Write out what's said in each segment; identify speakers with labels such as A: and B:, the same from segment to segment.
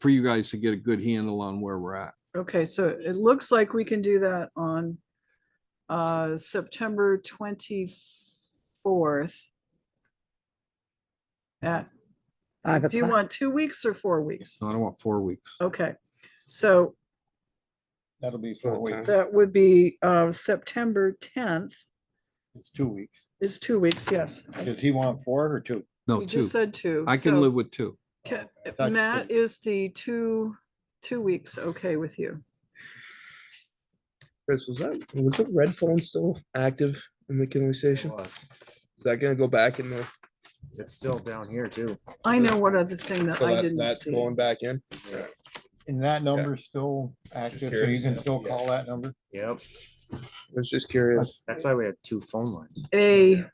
A: for you guys to get a good handle on where we're at.
B: Okay, so it looks like we can do that on uh September twenty-fourth. At,
C: Five
B: do you
C: o'clock.
B: want two weeks or four weeks?
A: So I don't want four weeks.
B: Okay, so
D: That'll be four weeks.
B: that would be uh September tenth
D: It's two weeks.
B: is two weeks, yes.
D: Does he want four or two?
A: No, Oh,
B: You
A: two.
B: just said two.
A: I can
B: so
A: live with two.
B: ca-
D: I thought you
B: Matt,
D: said-
B: is the two, two weeks okay with you?
E: Chris, was that, was the red phone still active in the killing station? Is that gonna go back in the,
F: It's still down here too.
B: I know one other thing that
E: so
B: I
E: that,
B: didn't
E: that's
B: see.
E: going back in?
D: And that number's still active, so you
E: curious.
D: can still call that number?
F: Yep,
E: I was just curious.
F: that's why we had two phone lines.
B: a,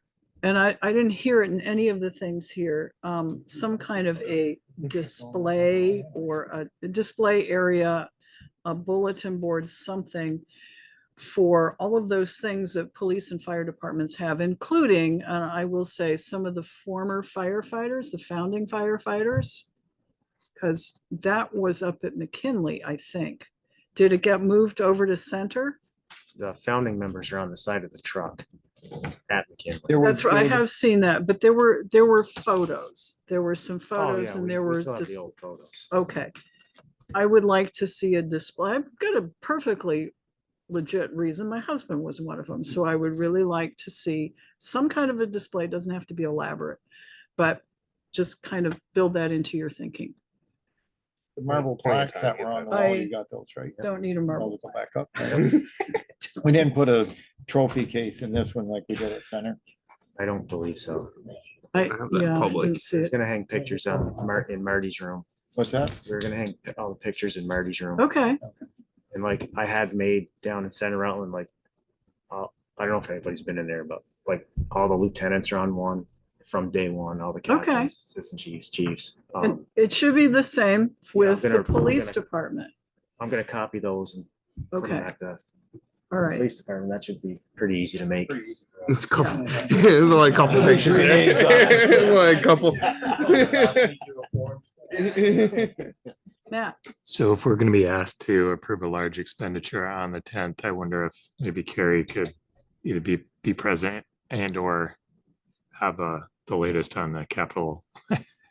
B: and I, I didn't hear it in any of the things here, um, some kind of a display or a display area, a bulletin board, something for all of those things that police and fire departments have, including, uh, I will say, some of the former firefighters, the founding firefighters. Cause that was up at McKinley, I think. Did it get moved over to center?
F: The founding members are on the side of the truck at McKinley.
D: There were
B: That's right. I
D: two of
B: have seen that, but there were, there were photos. There were some
F: Oh,
B: photos
F: yeah,
B: and
F: we-
B: there
F: we
B: were
F: still have the
B: just,
F: old photos.
B: okay. I would like to see a display. I've got a perfectly legit reason. My husband was one of them, so I would really like to see some kind of a display. It Doesn't have to be elaborate, but just kind of build that into your thinking.
D: the Marble
E: Plenty of
D: plaques
E: time
D: that
E: to
D: were
E: get
D: on the
B: that.
D: wall, you
B: I
D: got those, right?
B: Don't need a
D: Those
B: marble.
D: will go back up. We didn't put a trophy case in this one like we did at center.
F: I don't believe so.
B: I,
E: have that
B: yeah, I
E: public.
B: didn't see
F: We're
B: it.
F: gonna hang pictures on Mar- in Marty's room.
D: What's that?
F: We're gonna hang pi- all the pictures in Marty's room.
B: Okay,
F: And like I had made down in Center Rutland, like, uh, I don't know if anybody's been in there, but like all the lieutenants are on one from day one, all the captains, assistant chiefs, chiefs.
B: and
F: Um,
B: it should be the same with
F: gonna-
B: the
F: I'm
B: police
F: gonna-
B: department.
F: I'm gonna copy those and put them
B: Okay,
F: at the
B: all right.
F: police department. That should be pretty easy to make.
E: It's a couple, it's only a couple pictures. Only a couple.
B: Matt?
G: So if we're gonna be asked to approve a large expenditure on the tenth, I wonder if maybe Carrie could either be, be present and or have uh, the latest on the capital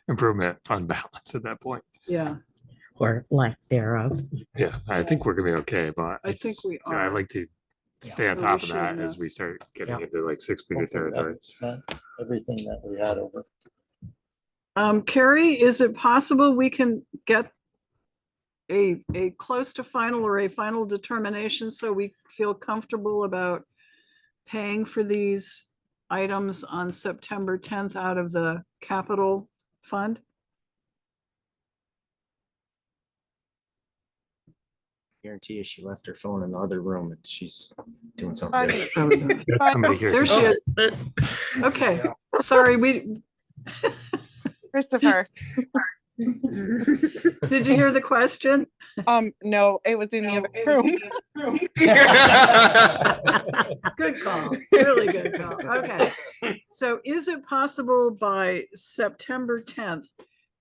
G: improvement fund balance at that point.
B: Yeah,
C: Or lack thereof.
G: Yeah, I think we're gonna be okay, but.
B: I think
G: it's-
B: we
G: yeah,
B: are.
G: I'd like to stay on
B: But we
G: top of
B: should
G: that as
B: know.
G: we start getting
F: Yeah.
G: into like six figure
D: Hopefully that
G: territory.
D: was not Everything that we had over.
B: um, Carrie, is it possible we can get a, a close to final or a final determination so we feel comfortable about paying for these items on September tenth out of the capital fund?
F: Guarantee you she left her phone in the other room and she's doing
H: I
F: something.
H: mean,
F: different.
B: Oh, no.
G: Got Somebody here.
B: There she is. Okay, sorry, we,
H: Christopher,
B: did you hear the question?
H: um, no, it was in the other room.
B: Good call, really good call. Okay. So is it possible by September tenth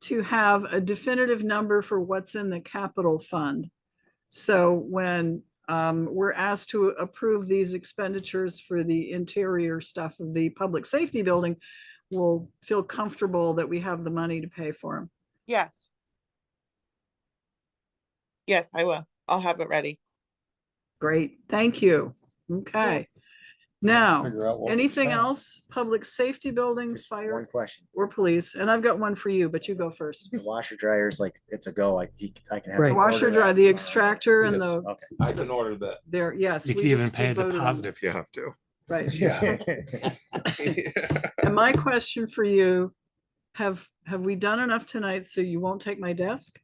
B: to have a definitive number for what's in the capital fund? So when um, we're asked to approve these expenditures for the interior stuff of the public safety building, we'll feel comfortable that we have the money to pay for them.
H: Yes. Yes, I will. I'll have it ready.
B: Great, thank you. Okay. Now,
D: Figure out what we
B: anything
D: spent.
B: else? Public safety building,
F: Just One
B: fire
F: question.
B: or police? And I've got one for you, but you go first.
F: The washer dryer is like, it's a go, like he, I can have.
C: Right.
F: him
B: Washer
F: order
B: dryer,
F: that
B: the
F: tomorrow.
B: extractor and the,
F: Okay.
I: I can order that.
B: there, yes.
G: You
B: we
G: can even
B: just- we
G: pay a
B: voted on that.
G: deposit if you have to.
B: Right.
E: Yeah.
B: And my question for you, have, have we done enough tonight so you won't take my desk?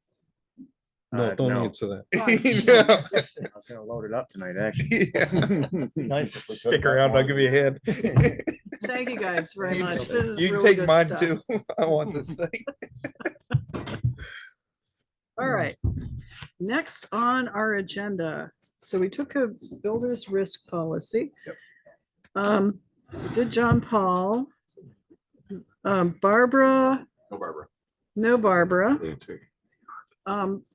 A: No,
F: Uh,
A: don't
F: no.
A: answer that.
B: Oh,
E: Yeah.
B: jeez.
F: I was gonna load it up tonight, actually.
D: Nice if we could've
E: Stick
D: done
E: around, I'll
D: one.
E: give you a hand.
B: Thank you guys very
E: You
B: much.
E: can-
B: This is
E: You can
B: really
E: take
B: good
E: mine
B: stuff.
E: too. I want this thing.
B: All right. Next on our agenda, so we took a builder's risk policy. Um, we did John Paul? Um, Barbara,
I: No, Barbara.
B: no Barbara. Um,